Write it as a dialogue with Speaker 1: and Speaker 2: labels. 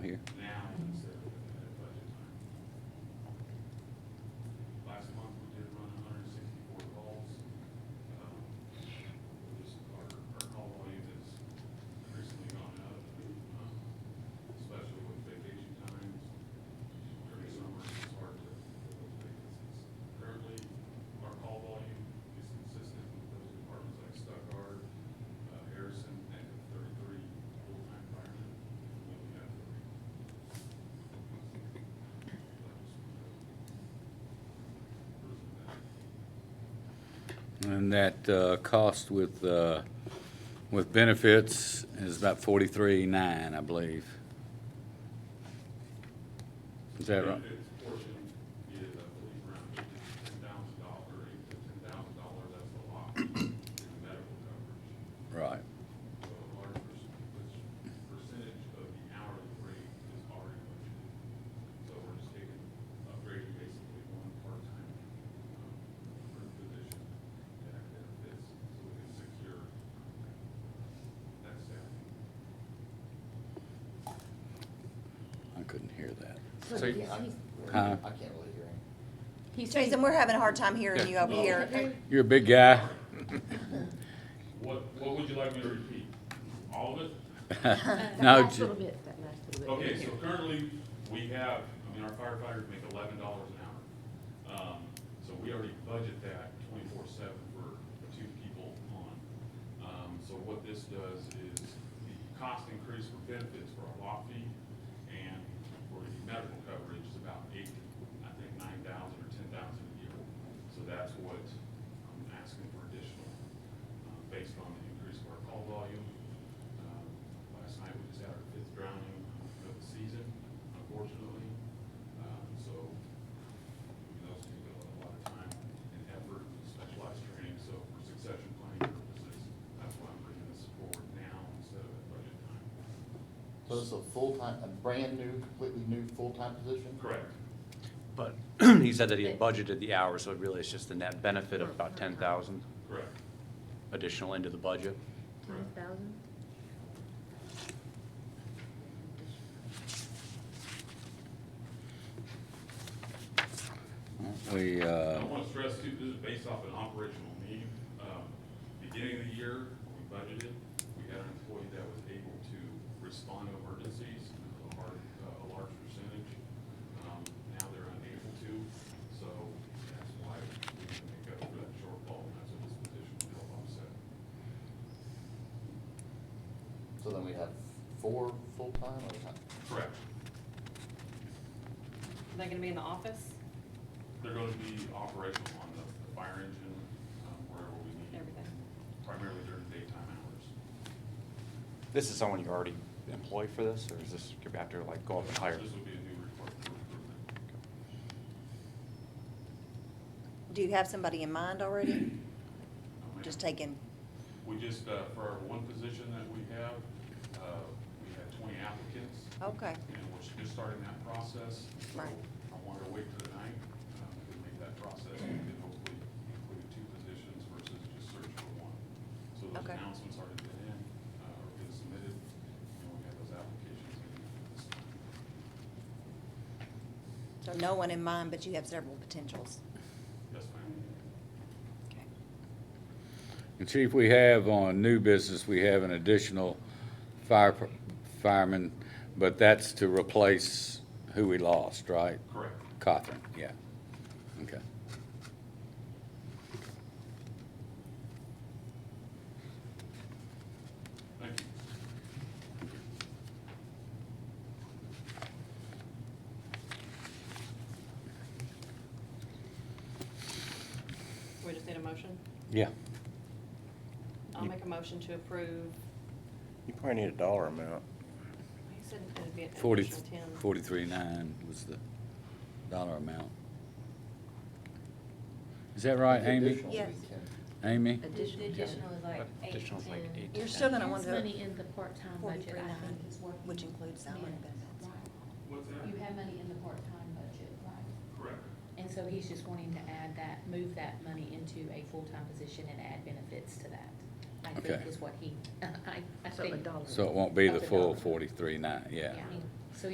Speaker 1: here.
Speaker 2: now instead of at budget time. Last month, we did run hundred and sixty-four calls. Um, we Just our, our call volume has recently gone up, um, especially with vacation times. During summer, it's hard to fill those vacancies. Currently, our call volume is consistent with those departments like Stuckard, uh, Harrison, and thirty-three full-time firemen. and We only have three.
Speaker 1: And that uh, cost with, uh, with benefits is about forty-three nine, I believe. Is that right?
Speaker 2: Its portion is, I believe, around ten thousand dollar, eight to ten thousand dollar, that's a lot in medical coverage.
Speaker 1: Right.
Speaker 2: So a large perc- percentage of the hourly rate is already budgeted. So we're just taking, upgrading basically one part-time, um, per position to have benefits, so we can secure um, that staffing.
Speaker 1: I couldn't hear that.
Speaker 3: So you-
Speaker 4: Uh-huh.
Speaker 1: Huh?
Speaker 5: I can't really hear him.
Speaker 6: He's
Speaker 3: Jason, we're having a hard time hearing you over
Speaker 2: Yeah.
Speaker 3: here.
Speaker 1: You're a big guy.
Speaker 2: What, what would you like me to repeat? All of it?
Speaker 4: Oh,
Speaker 1: No,
Speaker 6: Last
Speaker 1: ju-
Speaker 6: little bit, that last little bit.
Speaker 2: Okay, so currently, we have, I mean, our firefighters make eleven dollars an hour. Um, so we already budget that twenty-four seven for two people on. Um, so what this does is the cost increase for benefits for our lot fee and for the medical coverage is about eight, I think nine thousand or ten thousand a year. So that's what I'm asking for additional, um, based on the increase of our call volume. Um, Last night, we just had our fifth drowning of the season, unfortunately. Um, So, you know, it's going to a lot of time and effort, specialized training, so for succession planning purposes, that's why I'm bringing this forward now instead of at budget time.
Speaker 5: So this is a full-time, a brand-new, completely new full-time position?
Speaker 2: Correct.
Speaker 4: But he said that he had budgeted the hours, so really it's just the net benefit of about ten thousand
Speaker 2: Correct.
Speaker 4: additional into the budget.
Speaker 6: Ten thousand?
Speaker 1: we,
Speaker 2: I
Speaker 1: uh,
Speaker 2: want to stress too, this is based off an operational need. Um, Beginning of the year, we budgeted, we had an employee that was able to respond to emergencies, a large, a large percentage. Um, Now they're unable to, so that's why we need to make up for that shortfall, and that's what this position will help offset.
Speaker 5: So then we have four full-time or how-
Speaker 2: Correct.
Speaker 7: Are they gonna be in the office?
Speaker 2: They're going to be operational on the the fire engine, um, wherever we need.
Speaker 7: Everything.
Speaker 2: Primarily during daytime hours.
Speaker 4: This is someone you already employ for this, or is this, you have to like go up and hire?
Speaker 2: This will be a new report for improvement.
Speaker 3: Do you have somebody in mind already?
Speaker 2: Um,
Speaker 3: Just taking,
Speaker 2: We just, uh, for our one position that we have, uh, we had twenty applicants,
Speaker 3: okay,
Speaker 2: and we're just starting that process. So
Speaker 3: Oh. Right.
Speaker 2: I wanted to wait till tonight, um, to make that process, and we could hopefully include two positions versus just search for one. So those
Speaker 3: Okay.
Speaker 2: announcements already been in, uh, or been submitted, and we have those applications in this time.
Speaker 3: so no one in mind, but you have several potentials.
Speaker 2: Yes, ma'am.
Speaker 3: Okay.
Speaker 1: and Chief, we have on new business, we have an additional fire, fireman, but that's to replace who we lost, right?
Speaker 2: Correct.
Speaker 1: Cothran, yeah. Okay.
Speaker 2: Thank you.
Speaker 7: We just need a motion?
Speaker 1: Yeah.
Speaker 7: I'll make a motion to approve.
Speaker 8: You probably need a dollar amount.
Speaker 7: He said it'd be an
Speaker 1: Forty,
Speaker 7: additional ten.
Speaker 1: forty-three nine was the dollar amount. Is that right, Amy?
Speaker 5: Additional
Speaker 3: Yes.
Speaker 5: weekend.
Speaker 1: Additional. Amy?
Speaker 6: Additional.
Speaker 5: Additional
Speaker 6: is
Speaker 4: like eight Additional is like to eight to
Speaker 3: You're still gonna want
Speaker 6: There's money
Speaker 3: to,
Speaker 6: in the part-time budget, I
Speaker 3: 43.9,
Speaker 6: think, is what. you
Speaker 3: which includes salary
Speaker 6: meant,
Speaker 3: benefits.
Speaker 6: right?
Speaker 2: What's that?
Speaker 6: You have money in the part-time budget, right?
Speaker 2: Correct.
Speaker 6: And so he's just wanting to add that, move that money into a full-time position and add benefits to that. I
Speaker 1: Okay.
Speaker 6: think is what he, I, I
Speaker 3: So a
Speaker 6: think.
Speaker 3: dollar.
Speaker 1: So it won't be the
Speaker 6: Of the
Speaker 1: full
Speaker 6: dollar.
Speaker 1: forty-three nine, yeah.
Speaker 6: Yeah.